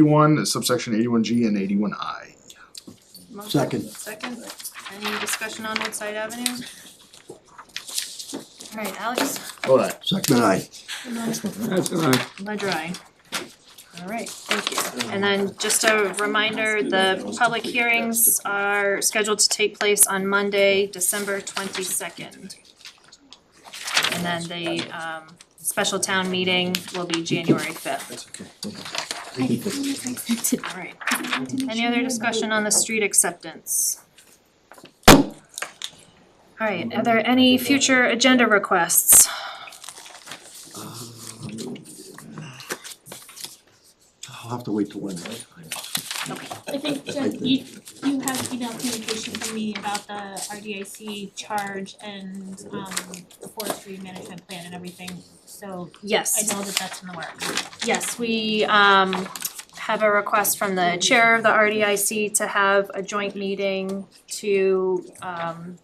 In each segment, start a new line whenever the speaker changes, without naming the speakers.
Eighty-one, subsection eighty-one G and eighty-one I.
Motion
Second.
Second, any discussion on Old Side Avenue? Alright, Alex,
All right.
Second I,
That's an aye.
ledger I. Alright, thank you, and then just a reminder, the public hearings are scheduled to take place on Monday, December twenty-second. And then the um special town meeting will be January fifth,
I think we need to accept it.
alright.
I want to make
Any
sure
other
we-
discussion on the street acceptance? Alright, are there any future agenda requests?
I'll have to wait till Wednesday.
I think Jen, you you have email communication from me about the RDIC charge and um the forestry management plan and everything. So I
Yes,
know that that's in the works.
yes, we um have a request from the chair of the RDIC to have a joint meeting to um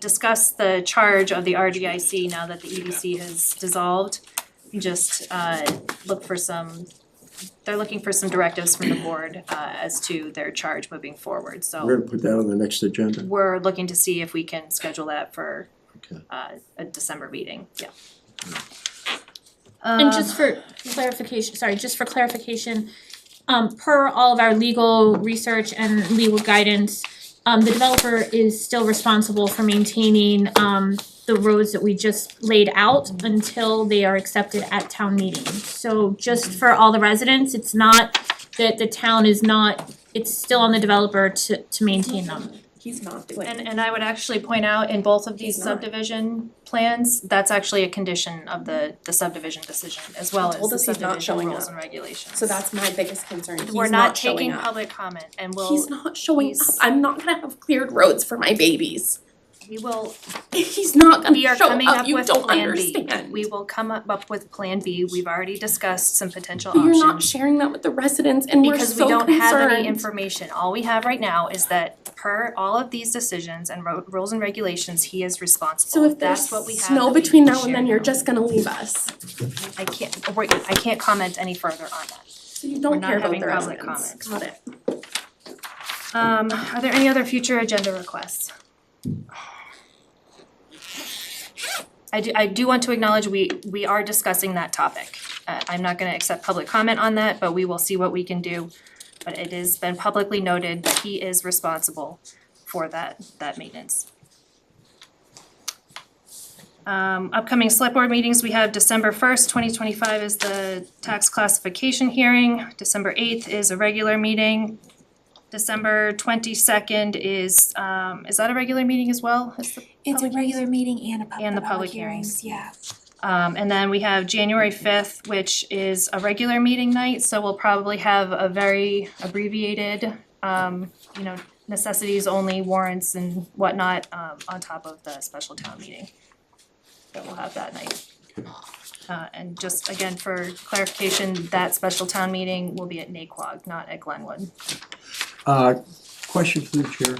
discuss the charge of the RDIC now that the EDC has dissolved. Just uh look for some, they're looking for some directives from the board uh as to their charge moving forward, so.
We're gonna put that on the next agenda.
we're looking to see if we can schedule that for
Okay.
uh a December meeting, yeah. Um,
And just for clarification, sorry, just for clarification, um per all of our legal research and legal guidance, um the developer is still responsible for maintaining um the roads that we just laid out until they are accepted at town meeting. So just for all the residents, it's not that the town is not, it's still on the developer to to maintain them.
He's not doing
And
it.
and I would actually point out in both of these
He's not.
subdivision plans, that's actually a condition of the the subdivision decision as well as
told
the
us he's not
subdivision
showing
rules
up.
and regulations.
So that's my biggest concern. He's
We're not
showing
taking
up.
public comment and
He's
we'll,
not showing up.
he's-
I'm not gonna have cleared roads for my babies.
we will,
He's not
we
gonna
are
show
coming
up.
up
You
with a
don't
plan B.
understand.
We will come up up with plan B. We've already discussed some potential
But
options.
you're not sharing that with the residents and we're
Because we
so concerned.
don't have any information, all we have right now is that per all of these decisions and ro- rules and regulations, he is
So
responsible,
if
that's
there's
what we have.
snow
that we
between
can
now and then,
share
you're
now.
just gonna leave us.
I can't, wait, I can't comment any further on that.
So you
We're
don't
not
care about
having
the
public comments.
residents. Got it.
Um, are there any other future agenda requests? I do, I do want to acknowledge we, we are discussing that topic. Uh, I'm not gonna accept public comment on that, but we will see what we can do. But it has been publicly noted that he is responsible for that, that maintenance. Um, upcoming select board meetings, we have December first, twenty twenty-five is the tax classification hearing. December eighth is a regular meeting. December twenty-second is, um, is that a regular meeting as well? Is the-
It's a
public hearings?
regular meeting and a pub-
And the
the public
public hearings.
hearings, yeah.
Um, and then we have January fifth, which is a regular meeting night, so we'll probably have a very abbreviated, um, you know, necessities only warrants and whatnot, um, on top of the special town meeting that we'll have that night. Uh, and just again, for clarification, that special town meeting will be at Naquag, not at Glenwood.
Uh, question for the chair.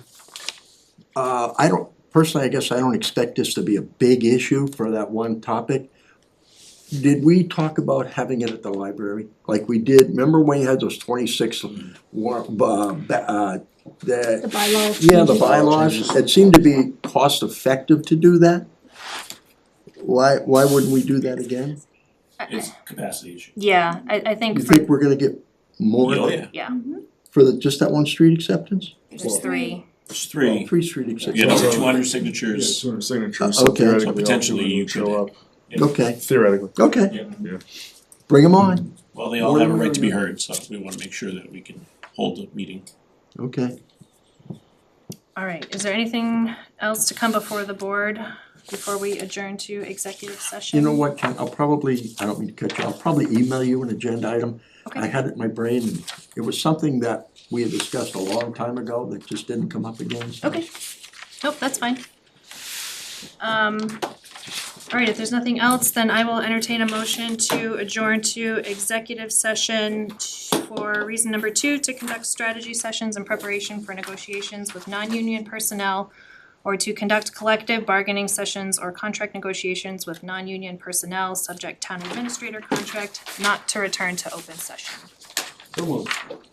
Uh, I don't, personally, I guess I don't expect this to be a big issue for that one topic. Did we talk about having it at the library, like we did, remember when you had those twenty-six war, uh, ba- uh,
The
the,
bylaw.
yeah, the
changes.
bylaws, it seemed to be cost-effective to do that? Why, why wouldn't we do that again?
It's capacity issue.
Yeah, I, I think
You
for,
think we're gonna get more
Oh, yeah.
yeah,
for the, just that one street acceptance? Oh,
there's three.
There's three,
Three street
you
acceptance,
know, two hundred
Yeah,
signatures,
two hundred
Uh,
signatures, so
okay. So
theoretically, all
potentially
three
you
would show up,
okay,
theoretically.
okay,
yeah,
bring them on,
well, they all have a right to be heard, so we wanna make sure that we can hold the meeting.
okay.
All right, is there anything else to come before the board before we adjourn to executive session?
You know what, Ken, I'll probably, I don't mean to cut you, I'll probably email you an agenda item. I
Okay,
had it in my brain, and it was something that we had discussed a long time ago that just didn't come up again, so.
okay. Nope, that's fine. Um, all right, if there's nothing else, then I will entertain a motion to adjourn to executive session for reason number two, to conduct strategy sessions in preparation for negotiations with non-union personnel or to conduct collective bargaining sessions or contract negotiations with non-union personnel, subject town administrator contract, not to return to open session.
So moved.